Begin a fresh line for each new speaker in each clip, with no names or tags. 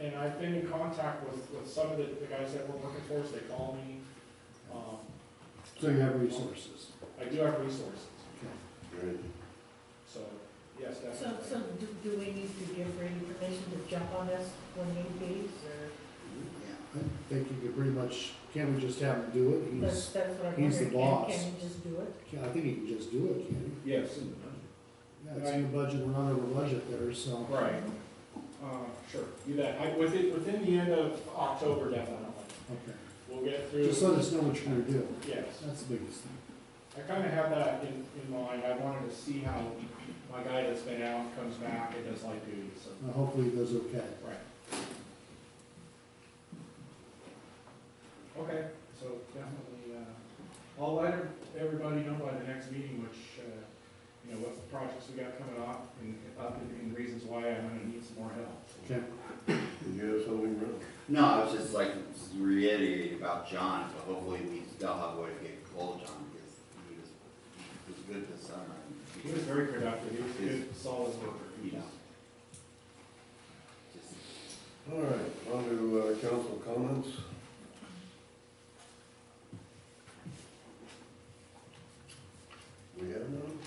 and I've been in contact with, with some of the, the guys that we're working for, so they call me. Um,
So you have resources.
I do have resources,
Great.
so, yes,
So,
definitely.
so do, do we need to give Brady permission to jump on us when need be, or,
I think you could pretty much, can't we just have him do it?
that's,
He's,
that's what I'm
he's the
wondering, can,
boss.
can he just do it?
yeah, I think he can just do it, can
Yes,
he? Yeah, it's in the budget, we're not over budget there, so.
right. Uh, sure, do that. I, within, within the end of October, definitely.
Okay.
We'll get through,
Just let us know what you're gonna do.
yes.
That's the biggest thing.
I kind of have that in, in mind. I wanted to see how my guy that's been out comes back and does light duty, so.
Now, Hopefully he does okay.
Right. Okay, so definitely, uh, I'll let everybody know by the next meeting, which, uh, you know, what projects we got coming up and, up and- and reasons why I'm gonna need some more help.
Okay.
Did you have something, Rick?
No, I was just like reiterating about John, so hopefully we still have a way to get hold of John, because he was, he was good this summer.
He was very productive, he was a good, solid worker. He
Yeah.
just-
Just
All right, on to uh, council comments. We have none?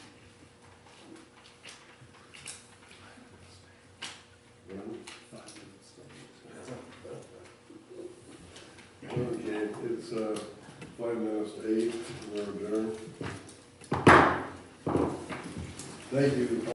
None?
Five minutes.
Okay, it's uh, five minutes to eight, we're adjourned. Thank you.